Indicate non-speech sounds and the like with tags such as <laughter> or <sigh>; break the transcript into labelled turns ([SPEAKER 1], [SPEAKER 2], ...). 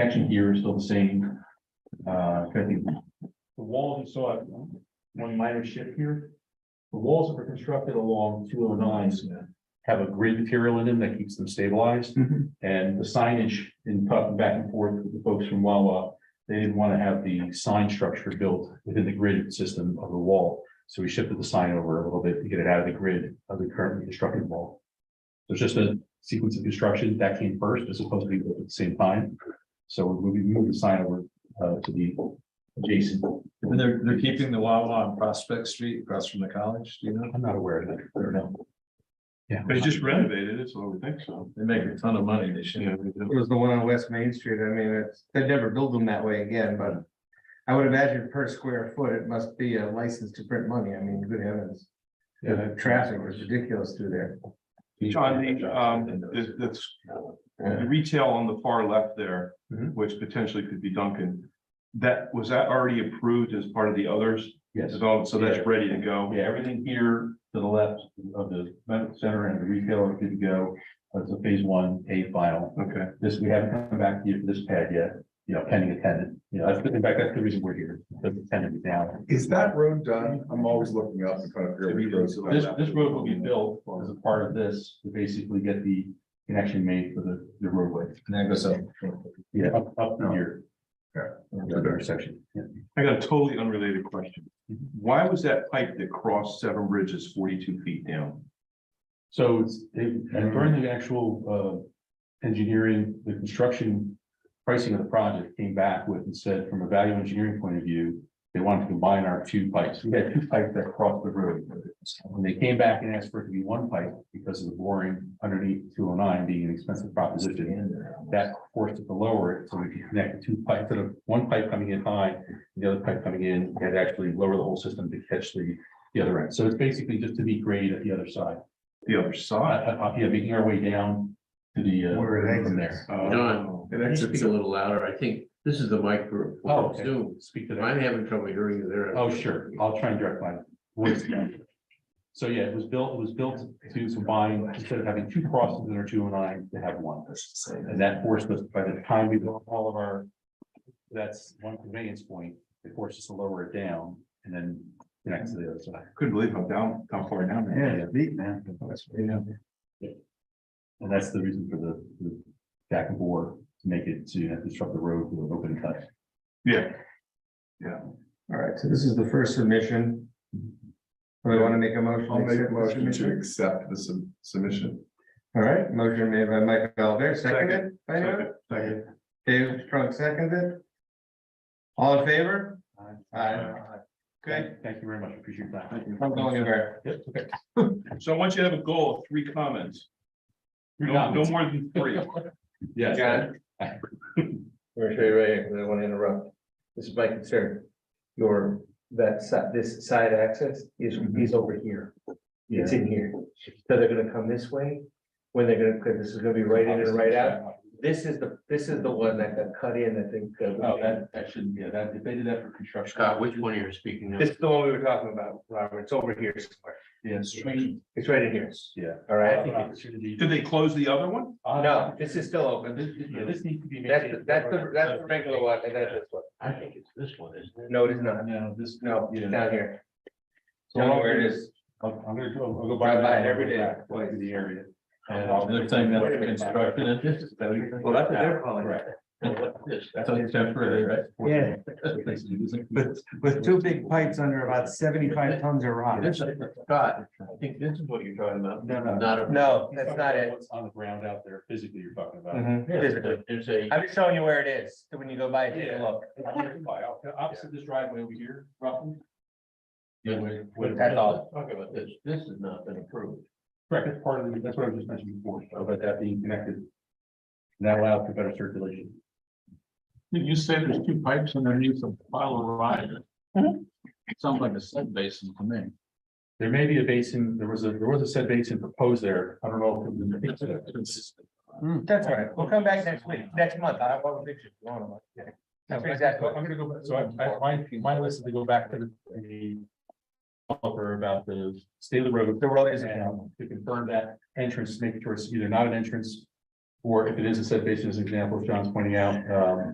[SPEAKER 1] Action here is still the same. Uh, I think the walls, you saw one minor shift here. The walls that were constructed along two oh nines have a grid material in them that keeps them stabilized.
[SPEAKER 2] Mhm.
[SPEAKER 1] And the signage in talking back and forth with the folks from Wawa, they didn't want to have the sign structure built within the grid system of the wall. So we shifted the sign over a little bit to get it out of the grid of the currently constructed wall. So it's just a sequence of construction that came first, as opposed to be built at the same time. So we moved- moved the sign over uh, to the adjacent.
[SPEAKER 2] And they're, they're keeping the Wawa on Prospect Street across from the college, do you know?
[SPEAKER 1] I'm not aware of that, I don't know. Yeah.
[SPEAKER 3] They just renovated it, so I would think so.
[SPEAKER 2] They make a ton of money this year.
[SPEAKER 3] Yeah, they do.
[SPEAKER 4] It was the one on West Main Street. I mean, it's, they'd never build them that way again, but. I would imagine per square foot, it must be a license to print money. I mean, good heavens.
[SPEAKER 3] Yeah,
[SPEAKER 4] The traffic was ridiculous through there.
[SPEAKER 3] John, the, um, the- that's, the retail on the far left there,
[SPEAKER 1] Mhm.
[SPEAKER 3] which potentially could be Duncan. That, was that already approved as part of the others
[SPEAKER 1] Yes.
[SPEAKER 3] developed, so that's
[SPEAKER 1] Yeah.
[SPEAKER 3] ready to go?
[SPEAKER 1] Yeah, everything here to the left of the medical center and the retailer could go, that's a phase one A final.
[SPEAKER 3] Okay,
[SPEAKER 1] This, we haven't come back to you for this pad yet, you know, pending a tenant, you know, that's, in fact, that's the reason we're here, that's the tenant is down.
[SPEAKER 5] Is that road done? I'm always looking up and trying to figure out which road's done.
[SPEAKER 1] This, this road will be built as a part of this, to basically get the connection made for the, the roadway,
[SPEAKER 2] And that goes up.
[SPEAKER 1] yeah, up, up
[SPEAKER 5] Oh.
[SPEAKER 1] to here. The intersection. Yeah.
[SPEAKER 3] I got a totally unrelated question.
[SPEAKER 1] Mhm.
[SPEAKER 3] Why was that pipe that crossed Seven Bridges forty-two feet down?
[SPEAKER 1] So it's, it- and during the actual uh engineering, the construction pricing of the project came back with and said, from a value engineering point of view, they wanted to combine our two pipes. We had two pipes that crossed the road. When they came back and asked for it to be one pipe because of the boring underneath two oh nine being an expensive proposition. That forced it to lower it so we could connect the two pipes, instead of one pipe coming in high, the other pipe coming in, we had to actually lower the whole system to catch the the other end. So it's basically just to meet grade at the other side.
[SPEAKER 3] The other side?
[SPEAKER 1] Uh, uh, yeah, making our way down to the. uh,
[SPEAKER 4] Where it
[SPEAKER 1] from
[SPEAKER 4] exits.
[SPEAKER 1] there.
[SPEAKER 3] Oh.
[SPEAKER 5] It
[SPEAKER 6] Can you
[SPEAKER 5] exits
[SPEAKER 6] speak a little louder? I think this is the mic for
[SPEAKER 1] Oh,
[SPEAKER 6] for
[SPEAKER 1] okay.
[SPEAKER 6] Zoom.
[SPEAKER 1] Speak to that.
[SPEAKER 6] I'm having trouble hearing you there.
[SPEAKER 1] Oh, sure. I'll try and direct my voice down. So yeah, it was built, it was built to combine, instead of having two crosses in our two and nine, to have one. And that forced us, by the time we built all of our, that's one conveyance point, it forced us to lower it down and then connect to the other side.
[SPEAKER 3] Couldn't believe how down, how far down. that
[SPEAKER 1] Yeah, it's
[SPEAKER 4] deep, man.
[SPEAKER 1] And that's the reason for the, the back and forth, to make it to disrupt the road with an open cut.
[SPEAKER 3] Yeah,
[SPEAKER 4] All right, so this is the first submission. Do we want to make a motion? to
[SPEAKER 5] I'll make a
[SPEAKER 4] accept the
[SPEAKER 5] motion to
[SPEAKER 4] submission?
[SPEAKER 5] accept the sub- submission.
[SPEAKER 4] All right, motion made by Mike Valver, seconded by who?
[SPEAKER 3] second, second.
[SPEAKER 4] Dave Strunk, seconded. All in favor? Aye. Okay,
[SPEAKER 1] Thank- Thank you very much. Appreciate that.
[SPEAKER 4] I'm going anywhere.
[SPEAKER 1] Yep, okay.
[SPEAKER 3] So I want you to have a goal of three comments,
[SPEAKER 1] Three
[SPEAKER 3] no, no
[SPEAKER 1] comments.
[SPEAKER 3] more than three.
[SPEAKER 1] <laughs> Yes.
[SPEAKER 4] I'm gonna show you right, because I want to interrupt. This is my concern. Your, that side, this side access is,
[SPEAKER 1] Mm-hmm.
[SPEAKER 4] is over here. It's in here. So they're gonna come this way, when they're gonna, because this is gonna be right in and right out. This is the, this is the one that got cut in, I think. uh,
[SPEAKER 1] Oh, that, that shouldn't, yeah, that, if they did that for construction.
[SPEAKER 6] Scott, which one are you speaking now?
[SPEAKER 4] This is the one we were talking about, Robert. It's over here somewhere.
[SPEAKER 1] Yes. Did
[SPEAKER 4] It's right in here.
[SPEAKER 1] Yeah.
[SPEAKER 4] All right.
[SPEAKER 3] Did they close the other one?
[SPEAKER 4] No, this is still open.
[SPEAKER 1] This, yeah, this needs to be.
[SPEAKER 4] That's,
[SPEAKER 1] maintained.
[SPEAKER 4] that's the, that's the regular one, and that's this one.
[SPEAKER 6] I think it's this one, isn't it?
[SPEAKER 4] No, it is not.
[SPEAKER 1] No, this.
[SPEAKER 4] No,
[SPEAKER 1] Yeah.
[SPEAKER 4] down here.
[SPEAKER 1] So I'll-
[SPEAKER 4] Where it is.
[SPEAKER 1] I'm, I'm gonna go, I'll go
[SPEAKER 4] Drive
[SPEAKER 1] by.
[SPEAKER 4] by it every day.
[SPEAKER 1] Go to the area. And I'll-
[SPEAKER 2] They're saying that they're constructing it. This is temporary,
[SPEAKER 4] Well, that's what they're calling it.
[SPEAKER 1] Correct.
[SPEAKER 6] And what's this?
[SPEAKER 2] right?
[SPEAKER 4] Yeah.
[SPEAKER 2] Yeah.
[SPEAKER 4] With two big pipes under about seventy-five tons of rock.
[SPEAKER 6] This, Scott, I think this is what you're talking about.
[SPEAKER 4] No, no.
[SPEAKER 6] Not a.
[SPEAKER 4] No, that's not it.
[SPEAKER 1] What's on the ground out there physically you're talking about.
[SPEAKER 4] Mhm. Physically.
[SPEAKER 6] There's a,
[SPEAKER 4] I'm just showing you where it is, so when you go by, take a look.
[SPEAKER 1] Opposite this driveway over here, roughly.
[SPEAKER 6] Yeah, we-
[SPEAKER 1] With-
[SPEAKER 4] That's all.
[SPEAKER 6] talk about this, this has not been approved.
[SPEAKER 1] Correct, that's part of, the- that's what I was just mentioning before, about that being connected. And That allows for better circulation.
[SPEAKER 7] Did you say there's two pipes underneath the pile of rock? Sounds like a sub basin to me.
[SPEAKER 1] There may be a basin, there was a, there was a said basin proposed there, I don't know. if it was-
[SPEAKER 4] That's all right, we'll come back next week, next month, I want a picture. I want one. That's exactly.
[SPEAKER 1] I'm gonna go, back- so I, I, my, my list is to go back to the. developer about the state of the road.
[SPEAKER 4] The road is-
[SPEAKER 1] And To confirm that entrance, make sure it's either not an entrance. Or if it is a said basin, as an example, as John's pointing out, um,